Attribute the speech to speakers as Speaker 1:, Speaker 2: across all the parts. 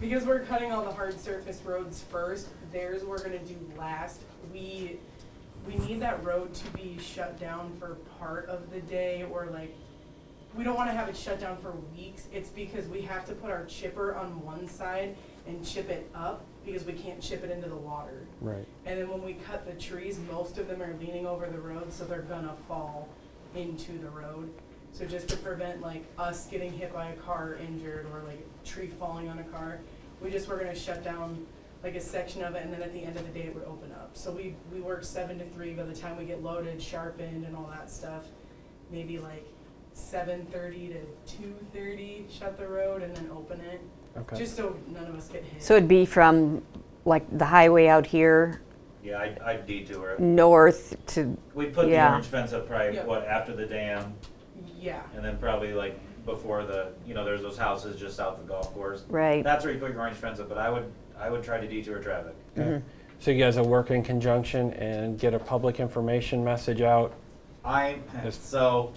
Speaker 1: Because we're cutting all the hard surface roads first, theirs we're gonna do last. We, we need that road to be shut down for part of the day or like, we don't wanna have it shut down for weeks. It's because we have to put our chipper on one side and chip it up because we can't chip it into the water.
Speaker 2: Right.
Speaker 1: And then when we cut the trees, most of them are leaning over the road, so they're gonna fall into the road. So just to prevent like us getting hit by a car or injured or like a tree falling on a car, we just were gonna shut down like a section of it and then at the end of the day it would open up. So we, we work seven to three by the time we get loaded, sharpened and all that stuff. Maybe like seven thirty to two thirty, shut the road and then open it,
Speaker 2: Okay.
Speaker 1: just so none of us get hit.
Speaker 3: So it'd be from like the highway out here
Speaker 4: Yeah, I'd, I'd detour it.
Speaker 3: north to,
Speaker 4: We put
Speaker 3: Mm.
Speaker 4: the
Speaker 3: Yeah.
Speaker 4: orange fence up probably,
Speaker 1: Yeah.
Speaker 4: what, after the dam,
Speaker 1: Yeah.
Speaker 4: and then probably like before the, you know, there's those houses just south of the golf course.
Speaker 3: right?
Speaker 4: That's where you put your orange fence up, but I would, I would try to detour traffic.
Speaker 2: Okay. So you guys will work in conjunction and get a public information message out.
Speaker 4: I,
Speaker 2: Yes.
Speaker 4: so,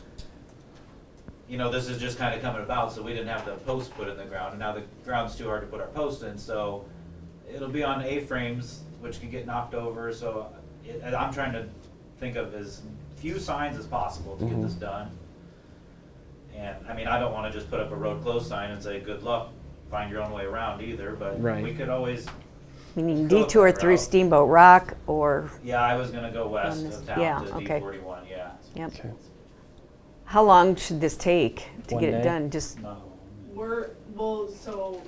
Speaker 4: you know, this is just kind of coming about, so we didn't have the post put in the ground, and now the ground's too hard to put our post in, so it'll be on A-frames, which could get knocked over, so it, and I'm trying to think of as few signs as possible to get this
Speaker 2: Mhm.
Speaker 4: done. And, I mean, I don't want to just put up a road closed sign and say, good luck, find your own way around either, but
Speaker 2: Right.
Speaker 4: we could always,
Speaker 3: You need
Speaker 4: Go up
Speaker 3: detour
Speaker 4: that
Speaker 3: through
Speaker 4: route.
Speaker 3: Steamboat Rock or,
Speaker 4: yeah, I was gonna go west
Speaker 3: this-
Speaker 4: of
Speaker 3: yeah,
Speaker 4: town to D
Speaker 3: okay.
Speaker 4: forty-one, yeah.
Speaker 3: yep.
Speaker 2: Okay.
Speaker 3: How long should this take to
Speaker 2: One
Speaker 3: get it
Speaker 2: day?
Speaker 3: done? Just,
Speaker 4: No.
Speaker 1: We're, well, so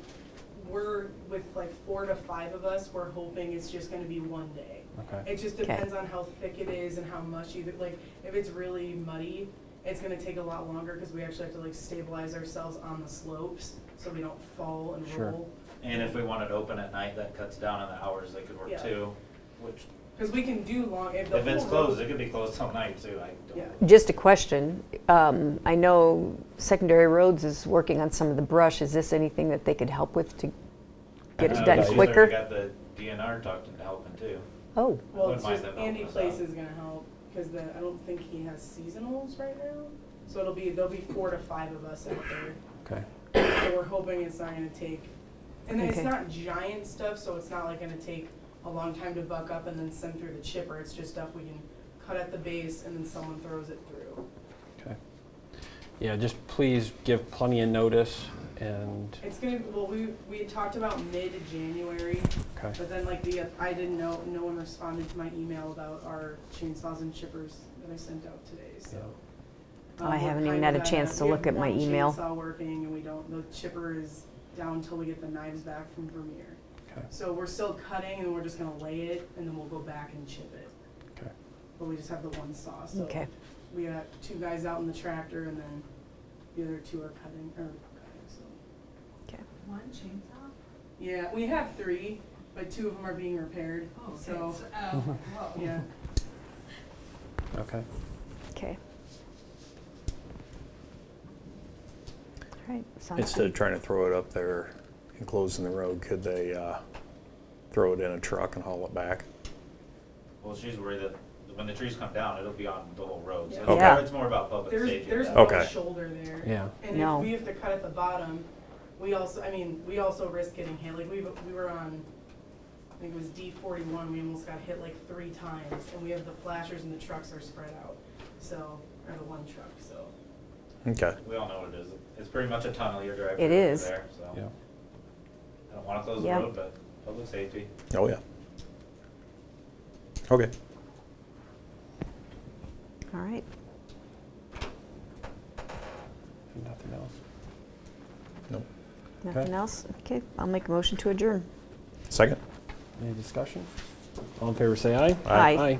Speaker 1: we're with like four to five of us, we're hoping it's just gonna be one day.
Speaker 2: Okay.
Speaker 1: It just depends on how thick it is and how much you, like, if it's really muddy, it's gonna take a lot longer because we actually have to like stabilize ourselves on the slopes so we don't fall and
Speaker 2: Sure.
Speaker 1: roll.
Speaker 4: And if we wanted open at night, that cuts down on the hours they could
Speaker 1: Yeah.
Speaker 4: work too, which,
Speaker 1: Because we can do long, if the
Speaker 4: if it's
Speaker 1: whole road-
Speaker 4: closed, it could be closed all night too, I
Speaker 1: Yeah.
Speaker 4: don't.
Speaker 3: just a question. Um, I know Secondary Roads is working on some of the brush. Is this anything that they could help with to get
Speaker 4: I
Speaker 3: it
Speaker 4: know,
Speaker 3: done
Speaker 4: Uh, she's already
Speaker 3: quicker?
Speaker 4: Got the DNR talked into helping too.
Speaker 3: Oh,
Speaker 1: Well,
Speaker 4: wouldn't
Speaker 1: it's
Speaker 4: mind
Speaker 1: just
Speaker 4: them helping
Speaker 1: Andy
Speaker 4: us
Speaker 1: Place
Speaker 4: out.
Speaker 1: is gonna help because the, I don't think he has seasonals right now. So it'll be, there'll be four to five of us out there.
Speaker 2: Okay.
Speaker 1: So we're hoping it's not gonna take, and then it's
Speaker 3: Okay.
Speaker 1: not giant stuff, so it's not like gonna take a long time to buck up and then send through the chipper. It's just stuff we can cut at the base and then someone throws it through.
Speaker 2: Okay. Yeah, just please give plenty of notice and,
Speaker 1: It's gonna, well, we, we had talked about mid-January,
Speaker 2: okay,
Speaker 1: but then like the, I didn't know, no one responded to my email about our chainsaws and chippers that I sent out today, so.
Speaker 2: Yeah.
Speaker 1: um,
Speaker 3: Oh, I
Speaker 1: we're
Speaker 3: haven't even
Speaker 1: kind
Speaker 3: had a
Speaker 1: of at
Speaker 3: chance to
Speaker 1: we
Speaker 3: look
Speaker 1: have
Speaker 3: at my
Speaker 1: one
Speaker 3: email.
Speaker 1: Chainsaw working and we don't, the chipper is down till we get the knives back from Vermeer.
Speaker 2: okay,
Speaker 1: So we're still cutting and we're just gonna lay it and then we'll go back and chip it.
Speaker 2: okay.
Speaker 1: But we just have the one saw, so.
Speaker 3: okay.
Speaker 1: We got two guys out in the tractor and then the other two are cutting, or cutting, so.
Speaker 5: One chainsaw?
Speaker 1: Yeah, we have three, but two of them are being repaired,
Speaker 5: Oh, okay.
Speaker 1: so,
Speaker 5: So- oh, whoa.
Speaker 1: yeah.
Speaker 2: Okay.
Speaker 3: Okay. All right, sounds
Speaker 6: Instead
Speaker 3: good.
Speaker 6: of trying to throw it up there and closing the road, could they uh, throw it in a truck and haul it back?
Speaker 4: Well, she's worried that when the trees come down, it'll be on the whole road, so
Speaker 1: Yeah.
Speaker 4: it's more-
Speaker 3: Yeah.
Speaker 4: it's more about public
Speaker 1: There's,
Speaker 4: safety.
Speaker 1: there's
Speaker 4: than-
Speaker 1: no
Speaker 6: Okay.
Speaker 1: shoulder there.
Speaker 2: Yeah.
Speaker 1: And
Speaker 3: No.
Speaker 1: if we have to cut at the bottom, we also, I mean, we also risk getting hit, like, we, we were on, I think it was D forty-one, we almost got hit like three times, and we have the flashers and the trucks are spread out, so, or the one truck, so.
Speaker 6: Okay.
Speaker 4: We all know what it is, it's pretty much a tunnel you're driving
Speaker 3: It
Speaker 4: through
Speaker 3: is.
Speaker 4: there, so.
Speaker 2: Yeah.
Speaker 4: I don't wanna close the
Speaker 3: Yeah.
Speaker 4: road, but public safety.
Speaker 6: Oh, yeah. Okay.
Speaker 3: All right.
Speaker 2: Nothing else.
Speaker 6: Nope.
Speaker 3: Nothing else? Okay, I'll make a motion to adjourn.
Speaker 6: Second?
Speaker 2: Any discussion? All in favor, say aye.
Speaker 3: Aye.
Speaker 2: Aye.